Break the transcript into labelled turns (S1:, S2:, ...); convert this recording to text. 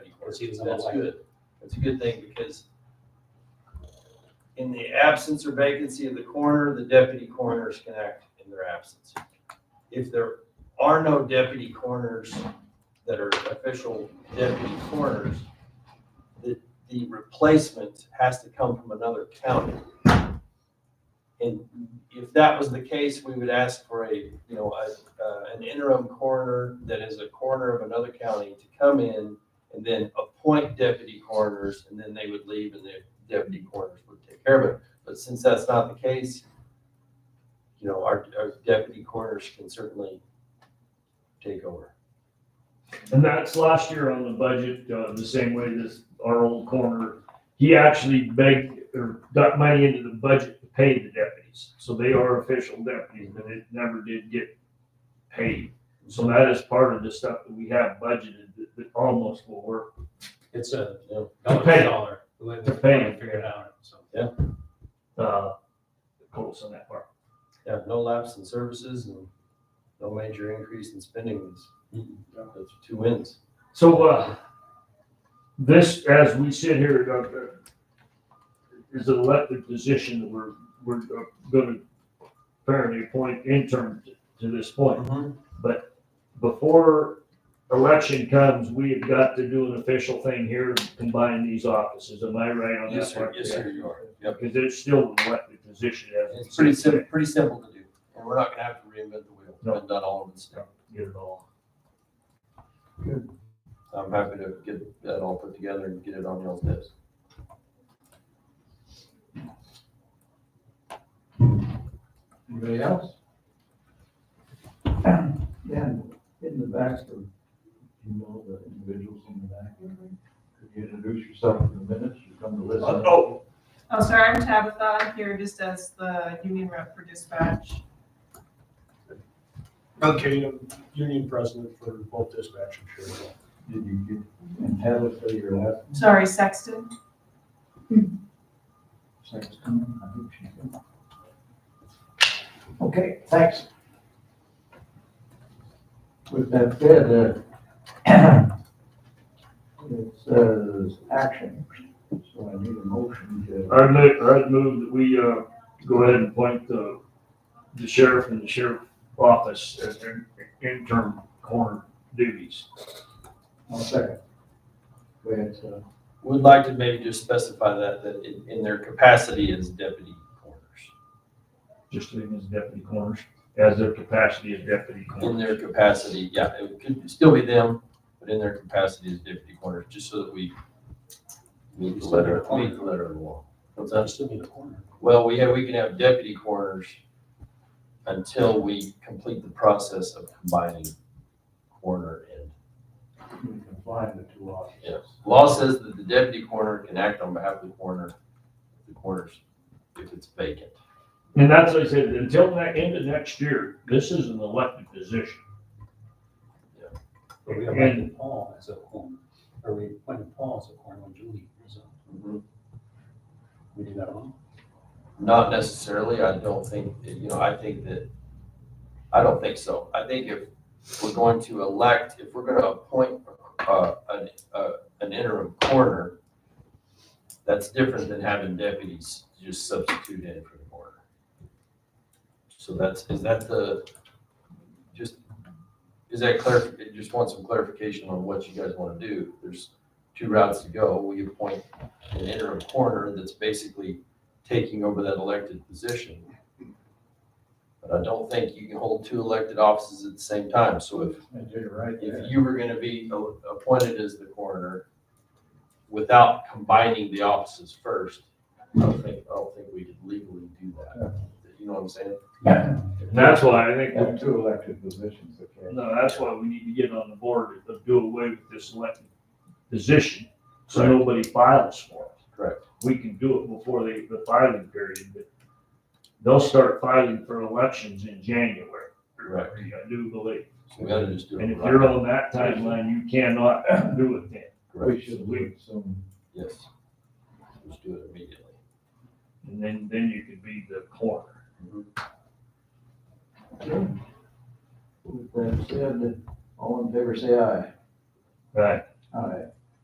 S1: because he was
S2: That's
S1: unelected.
S2: good. That's a good thing because in the absence or vacancy of the coroner, the deputy coroners can act in their absence. If there are no deputy coroners that are official deputy coroners, the, the replacement has to come from another county. And if that was the case, we would ask for a, you know, a, uh, an interim coroner that is a coroner of another county to come in and then appoint deputy coroners, and then they would leave and the deputy coroners would take care of it. But since that's not the case, you know, our, our deputy coroners can certainly take over.
S3: And that's last year on the budget, uh, the same way this, our old corner, he actually begged or got money into the budget to pay the deputies. So they are official deputies, but it never did get paid. So that is part of the stuff that we have budgeted that, that almost will work.
S1: It's a
S2: You know,
S1: dollar
S3: Pay.
S1: for dollar, the way we
S3: To pay.
S1: figured it out, so.
S3: Uh, close on that part.
S2: yeah, no lapse in services and no major increase in spending. That's
S4: Mm-hmm.
S2: that's two wins.
S3: So, uh, this, as we sit here, uh, uh, is an elected position that we're, we're uh, gonna apparently appoint interim t- to this point.
S2: Mm-hmm.
S3: Before election comes, we have got to do an official thing here, to combine these offices. Am I right on
S2: Yes,
S3: that
S2: sir,
S3: part?
S2: yes, sir, you are. Yep.
S3: Because it's still an elected position as.
S2: It's pretty simple, pretty simple to do, and we're not gonna have to reinvent the wheel.
S3: No.
S2: We've done all of this stuff.
S3: Get it all.
S2: I'm happy to get that all put together and get it on y'all's desk. Anybody else?
S5: Dan, in the back, of you know, the individuals in the back, could you introduce yourself in the minutes, you come to listen?
S3: Oh,
S6: Oh, sorry, I'm Tabitha. I'm here just as the union rep for dispatch.
S4: Okay, I'm union president for both dispatch and sheriff.
S5: Did you get, and tell us where you're at?
S6: Sorry, Sexton.
S5: Sexton, I think she said. Okay, thanks. With that said, uh, it says action, so I need a motion to,
S3: I move, I move that we, uh, go ahead and appoint the, the sheriff and the sheriff office as their interim coroner duties.
S5: I'll second. Go ahead, sir.
S2: Would like to maybe just specify that, that in, in their capacity as deputy coroners,
S3: Just leaving as deputy coroners, as their capacity as deputy
S2: in
S3: coroners.
S2: their capacity, yeah, it could still be them, but in their capacity as deputy coroners, just so that we meet the letter, meet the letter of the law. What's that?
S1: That's still be the corner.
S2: Well, we have, we can have deputy coroners until we complete the process of combining coroner and
S5: We combine the two offices.
S2: Law says that the deputy coroner can act on behalf of the coroner, the coroners, if it's vacant.
S3: And that's what I said, until that, end of next year, this is an elected position.
S1: But we appointed Paul as a corner, or we appointed Paul as a corner when Julie was up.
S2: Mm-hmm.
S1: We do that alone.
S2: Not necessarily, I don't think, you know, I think that, I don't think so. I think if we're going to elect, if we're gonna appoint, uh, an, uh, an interim coroner, that's different than having deputies just substitute in for the coroner. So that's, is that the, just, is that clear, just want some clarification on what you guys wanna do. There's two routes to go. We appoint an interim coroner that's basically taking over that elected position. But I don't think you can hold two elected offices at the same time. So if,
S5: I did it right there.
S2: if you were gonna be a- appointed as the coroner without combining the offices first, I don't think, I don't think we could legally do that. You know what I'm saying?
S3: And that's why I think,
S5: Have two elected positions, okay.
S3: no, that's why we need to get on the board to do away with this elected position, so nobody files for it.
S2: Correct.
S3: we can do it before they, the filing period, but they'll start filing for elections in January.
S2: Right.
S3: I do believe.
S2: So we gotta just do
S3: And
S2: it
S3: if you're
S2: right.
S3: on that timeline, you cannot do it then.
S2: Correct.
S5: We should leave some,
S2: Yes. Let's do it immediately.
S3: And then, then you could be the coroner.
S5: with that said, all in favor, say aye.
S3: Right.
S5: Aye.